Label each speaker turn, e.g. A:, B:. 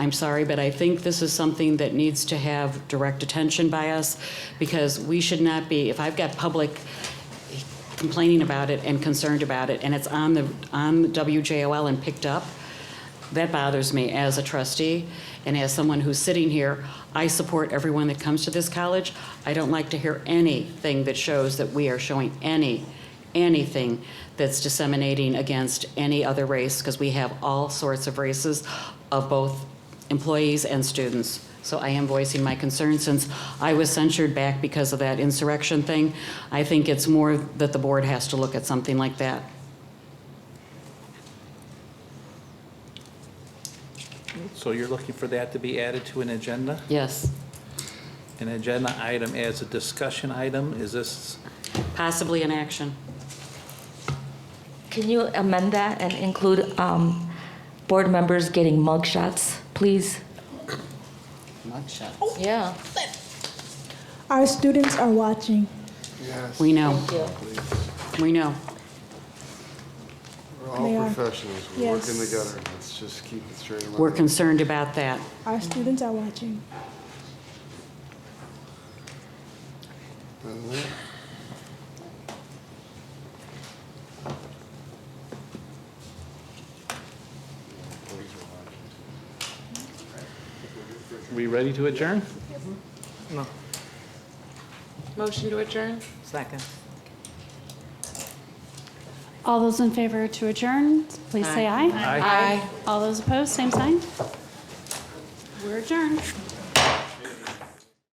A: I'm sorry, but I think this is something that needs to have direct attention by us because we should not be, if I've got public complaining about it and concerned about it, and it's on the, on WJOL and picked up, that bothers me as a trustee and as someone who's sitting here. I support everyone that comes to this college. I don't like to hear anything that shows that we are showing any, anything that's disseminating against any other race, because we have all sorts of races of both employees and students. So I am voicing my concern since I was censured back because of that insurrection thing. I think it's more that the board has to look at something like that.
B: So you're looking for that to be added to an agenda?
A: Yes.
B: An agenda item as a discussion item? Is this,
A: Possibly an action.
C: Can you amend that and include um, board members getting mug shots, please?
A: Mugshots.
C: Yeah.
D: Our students are watching.
A: We know,
C: Thank you.
A: we know.
E: We're
D: They
E: all
D: are.
E: professionals, we're working
D: Yes.
E: together, let's just keep it straight and
A: We're
E: level.
A: concerned about that.
D: Our students are watching.
E: Doesn't it?
B: we ready to adjourn?
F: Motion to adjourn?
G: Second.
H: All those in favor to adjourn, please say aye.
B: Aye.
F: Aye.
H: All those opposed, same sign. We're adjourned.